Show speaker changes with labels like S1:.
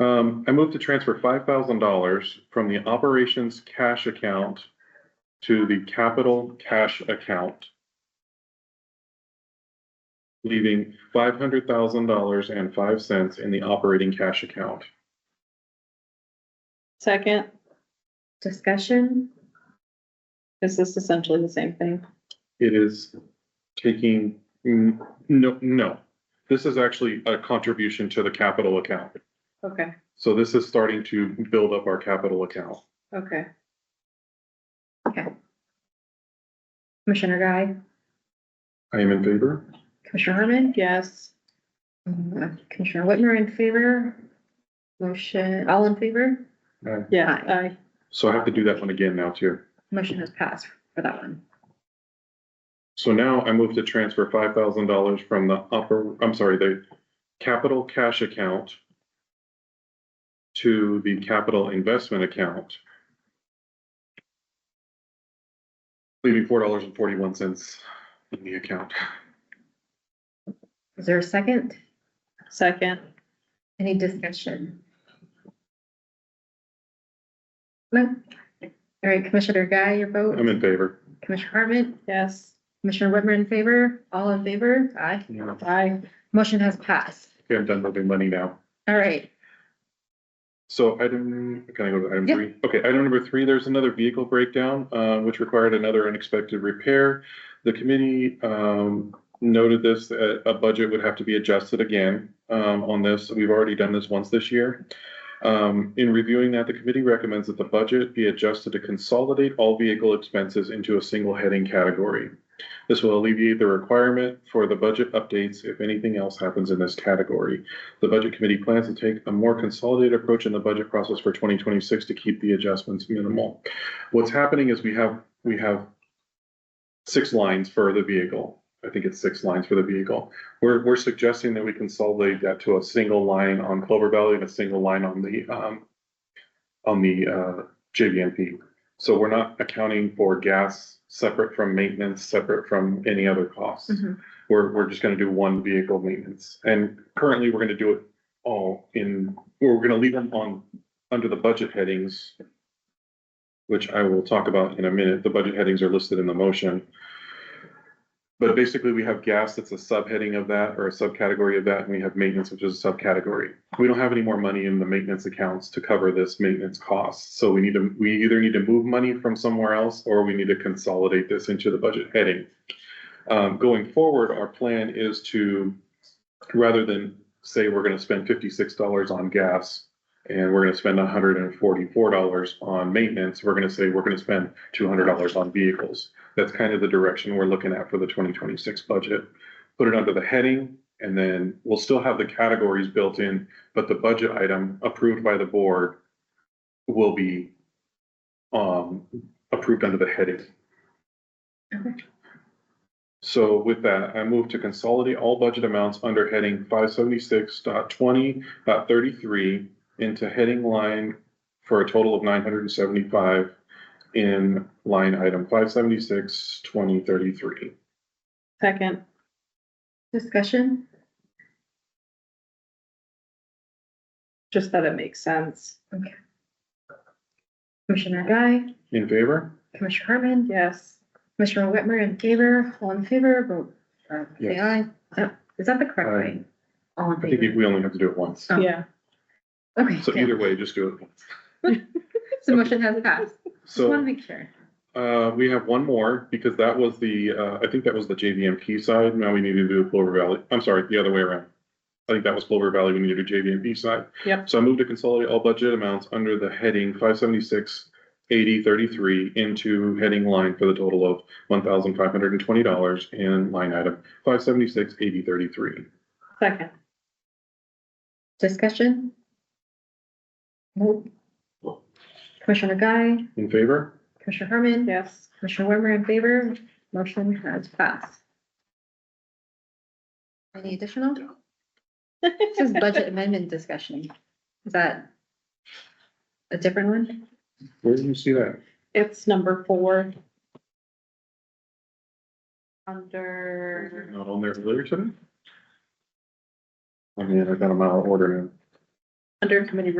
S1: Um, I move to transfer five thousand dollars from the operations cash account to the capital cash account. Leaving five hundred thousand dollars and five cents in the operating cash account.
S2: Second,
S3: Discussion?
S2: is this essentially the same thing?
S1: It is taking, mm, no, no. This is actually a contribution to the capital account.
S2: Okay,
S1: So this is starting to build up our capital account.
S2: okay.
S3: Okay. Commissioner Guy,
S1: I am in favor.
S3: Commissioner Herman?
S2: Yes,
S3: Uh, Commissioner Whitmer in favor? Motion, all in favor?
S2: yeah,
S3: Aye.
S2: aye.
S1: So I have to do that one again now too.
S3: Motion has passed for that one.
S1: So now I move to transfer five thousand dollars from the upper, I'm sorry, the capital cash account to the capital investment account. Leaving four dollars and forty-one cents in the account.
S3: Is there a second?
S2: Second,
S3: Any discussion? No? All right, Commissioner Guy, your vote?
S1: I'm in favor.
S3: Commissioner Hartman,
S2: yes,
S3: Commissioner Whitmer in favor, all in favor? Aye.
S1: Okay,
S2: aye.
S3: Motion has passed.
S1: I'm done moving money now.
S3: All right,
S1: So item, can I go to item
S3: Yeah.
S1: three? Okay, item number three, there's another vehicle breakdown, uh, which required another unexpected repair. The committee, um, noted this, uh, a budget would have to be adjusted again, um, on this. We've already done this once this year. Um, in reviewing that, the committee recommends that the budget be adjusted to consolidate all vehicle expenses into a single heading category. This will alleviate the requirement for the budget updates if anything else happens in this category. The Budget Committee plans to take a more consolidated approach in the budget process for twenty twenty-six to keep the adjustments minimal. What's happening is we have, we have six lines for the vehicle. I think it's six lines for the vehicle. We're, we're suggesting that we consolidate that to a single line on Clover Valley and a single line on the, um, on the, uh, JVMP. So we're not accounting for gas separate from maintenance, separate from any other costs
S2: Mm-hmm.
S3: Mhm.
S1: we're, we're just gonna do one vehicle maintenance. And currently, we're gonna do it all in, or we're gonna leave them on, under the budget headings, which I will talk about in a minute. The budget headings are listed in the motion. But basically, we have gas that's a subheading of that or a subcategory of that, and we have maintenance, which is a subcategory. We don't have any more money in the maintenance accounts to cover this maintenance cost. So we need to, we either need to move money from somewhere else or we need to consolidate this into the budget heading. Um, going forward, our plan is to, rather than say we're gonna spend fifty-six dollars on gas and we're gonna spend hundred and forty-four dollars on maintenance, we're gonna say we're gonna spend two hundred dollars on vehicles. That's kind of the direction we're looking at for the twenty twenty-six budget. Put it under the heading and then we'll still have the categories built in, but the budget item approved by the board will be um, approved under the heading. So with that, I move to consolidate all budget amounts under heading 576.20.33 into heading line for a total of nine hundred and seventy-five in line item 576.20.33.
S2: Second,
S3: discussion?
S2: just that it makes sense.
S3: Commissioner Guy,
S1: In favor?
S3: Commissioner Hartman,
S2: Yes,
S3: Commissioner Whitmer in favor, all in favor, vote, uh, say aye.
S1: Yes.
S3: Uh, Is that the correct
S1: Aye.
S3: way? All in
S1: I think
S3: favor?
S1: we only have to do it once.
S3: Oh.
S2: yeah,
S3: Okay,
S1: So
S3: yeah.
S1: either way, just do it. once.
S3: so motion has passed. Just want to
S1: So,
S3: make sure.
S1: uh, we have one more because that was the, uh, I think that was the JVMP side. Now we need to do Clover Valley. I'm sorry, the other way around. I think that was Clover Valley. We need to do JVMP side.
S2: yep,
S1: So I move to consolidate all budget amounts under the heading five seventy-six eighty thirty-three into heading line for the total of one thousand five hundred and twenty dollars in line item five seventy-six eighty thirty-three.
S2: second,
S3: Discussion? Nope. Commissioner Guy,
S1: In favor?
S3: Commissioner Herman,
S2: yes.
S3: Commissioner Whitmer in favor, motion has passed. Any additional? This is budget amendment discussion. Is that a different one?
S1: Where did you see that?
S2: It's number four. Under,
S1: Not on there earlier today? I mean, I got them out of order
S3: under committee